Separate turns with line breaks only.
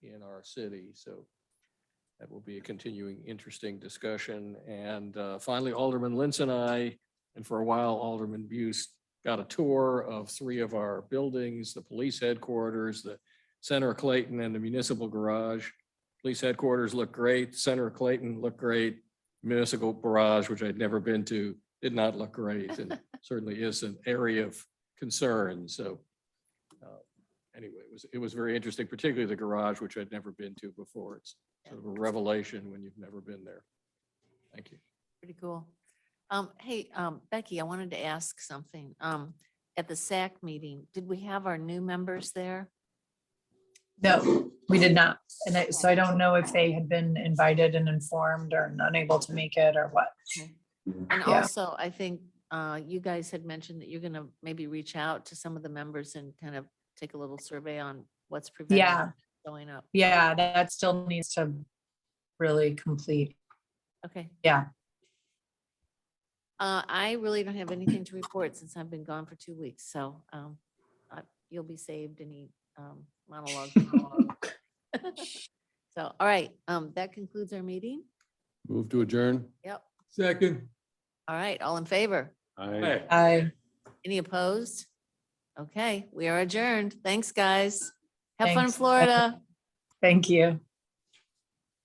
our city. So that will be a continuing, interesting discussion. And uh, finally, Alderman Lentz and I, and for a while Alderman Buse, got a tour of three of our buildings, the police headquarters, the Center of Clayton and the municipal garage. Police headquarters looked great. Center of Clayton looked great. Municipal garage, which I'd never been to, did not look great and certainly is an area of concern. So uh, anyway, it was, it was very interesting, particularly the garage, which I'd never been to before. It's sort of a revelation when you've never been there. Thank you.
Pretty cool. Um, hey, um, Becky, I wanted to ask something. Um, at the SAC meeting, did we have our new members there?
No, we did not. And I, so I don't know if they had been invited and informed or unable to make it or what.
And
Yeah.
also, I think, uh, you guys had mentioned that you're gonna maybe reach out to some of the members and kind of take a little survey on what's preventing
Yeah.
them from showing up.
Yeah, that still needs to really complete.
Okay.
Yeah.
Uh, I really don't have anything to report since I've been gone for two weeks, so, um, I- you'll be saved any, um, monologue. So, all right, um, that concludes our meeting.
Move to adjourn.
Yep.
Second.
All right, all in favor?
Aye.
I.
Any opposed? Okay, we are adjourned. Thanks, guys. Have fun in
Thanks.
Florida.
Thank you.